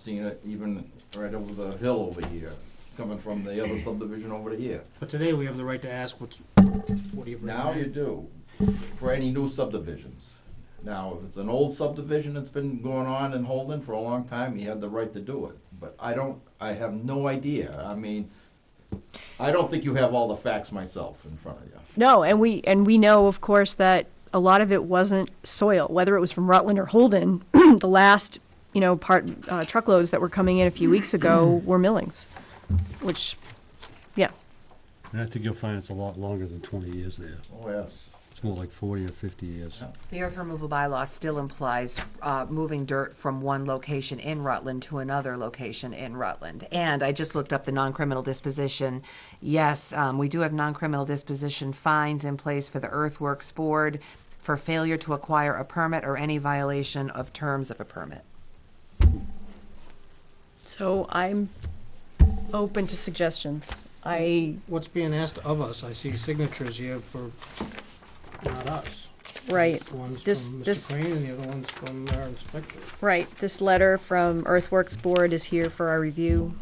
Seen it even right over the hill over here. It's coming from the other subdivision over to here. But today we have the right to ask what's, what do you Now you recommend? do, for any new subdivisions. Now, if it's an old subdivision that's been going on in Holden for a long time, you have the right to do it. But I don't, I have no idea. I mean, I don't think you have all the facts myself in front of you. No, and we and we know, of course, that a lot of it wasn't soil, whether it was from Rutland or Holden. the last, you know, part uh, truckloads that were coming in a few weeks ago were millings, which, yeah, And I think you'll find it's a lot longer than twenty years there. Oh, yes. It's more like forty or fifty years. The earth removal bylaw still implies uh, moving dirt from one location in Rutland to another location in Rutland. And I just looked up the non-criminal disposition. Yes, um, we do have non-criminal disposition fines in place for the earthworks board for failure to acquire a permit or any violation of terms of a permit. so I'm open to suggestions. I What's being asked of us? I see signatures here for not us. right One's from This- Mr. this- Crane and the other one's from our inspector. right this letter from Earthworks Board is here for our review.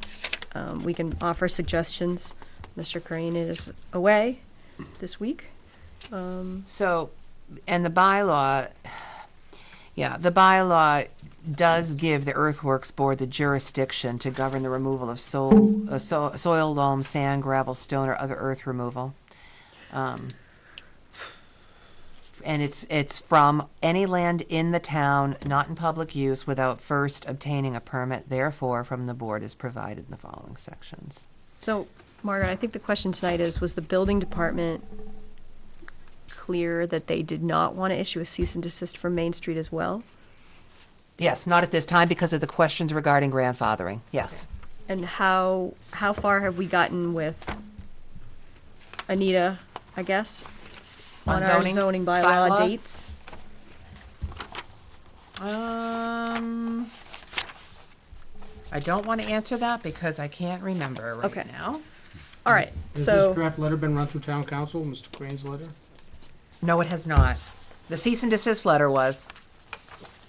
Um, we can offer suggestions. Mr. Crane is away this week. So, and the bylaw, yeah, the bylaw does give the earthworks board the jurisdiction to govern the removal of soil, uh, so, soil, loam, sand, gravel, stone, or other earth removal. Um, and it's, it's from any land in the town not in public use without first obtaining a permit, therefore from the board is provided in the following sections. So, Margaret, I think the question tonight is, was the building department clear that they did not want to issue a cease and desist for Main Street as well? Yes, not at this time because of the questions regarding grandfathering, yes. And how, how far have we gotten with Anita, I guess? On our zoning zoning bylaw bylaw? dates? Um, I don't want to answer that because I can't remember right Okay. now. All right, Has this so, draft letter been run through town council, Mr. Crane's letter? No, it has not. The cease and desist letter was.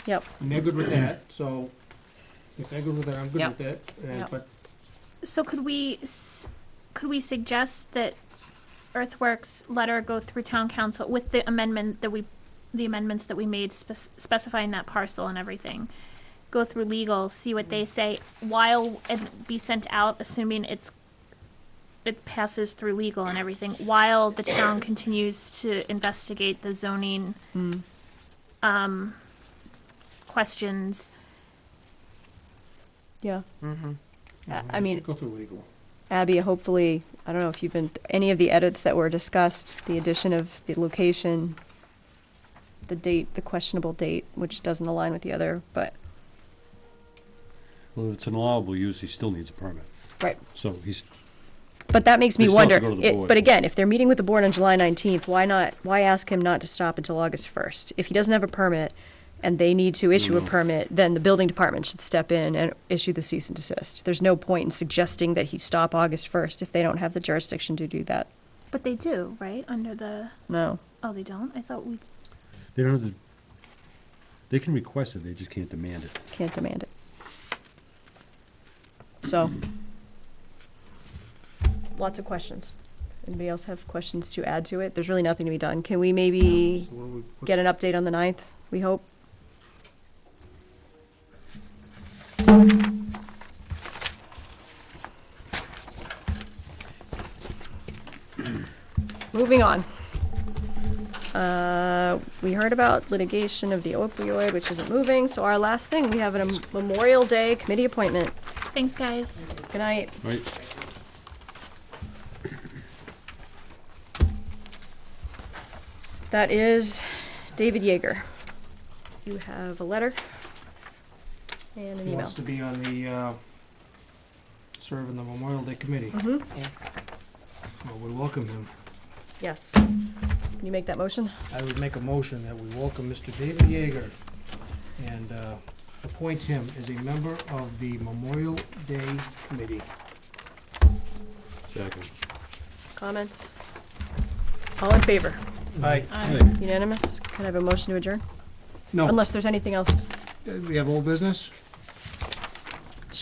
yep. And they're good with that, so if they're good with that, I'm good with Yep. that. And- Yep. But So could we, s- could we suggest that Earthworks letter go through town council with the amendment that we, the amendments that we made spec- specifying that parcel and everything? Go through legal, see what they say, while it be sent out, assuming it's, it passes through legal and everything, while the town continues to investigate the zoning, um, questions. Yeah. Mm-hmm. I- I mean, go through legal. Abby, hopefully, I don't know if you've been, any of the edits that were discussed, the addition of the location, the date, the questionable date, which doesn't align with the other, but, Well, if it's an allowable use, he still needs a permit. right. So he's, But that makes me They still have to wonder, go to the it- board. but again, if they're meeting with the board on July nineteenth, why not, why ask him not to stop until August first? If he doesn't have a permit and they need to issue Mm-hmm. a permit, then the building department should step in and issue the cease and desist. There's no point in suggesting that he stop August first if they don't have the jurisdiction to do that, But they do, right, under the, no. oh, they don't? I thought we they don't have the, they can request it, they just can't demand it. Can't demand it. So. Lots of questions. Anybody else have questions to add to it? There's really nothing to be done. Can we maybe So what do we- what's- get an update on the ninth, we hope? Moving on. Uh, We heard about litigation of the opioid, which isn't moving, so our last thing, we have a Memorial Day committee appointment. Thanks, guys. Good night. Right? That is David Yeager. You have a letter and an He email. wants to be on the, uh, serve in the Memorial Day Committee. Mm-hmm. Yes. Well, we welcome him. Yes. Can you make that motion? I would make a motion that we welcome Mr. David Yeager and uh, appoint him as a member of the Memorial Day Committee. Second. Comments? All in favor? Aye. Aye. Unanimous? Can I have a motion to adjourn? No, uh, Unless there's anything else. we have old business?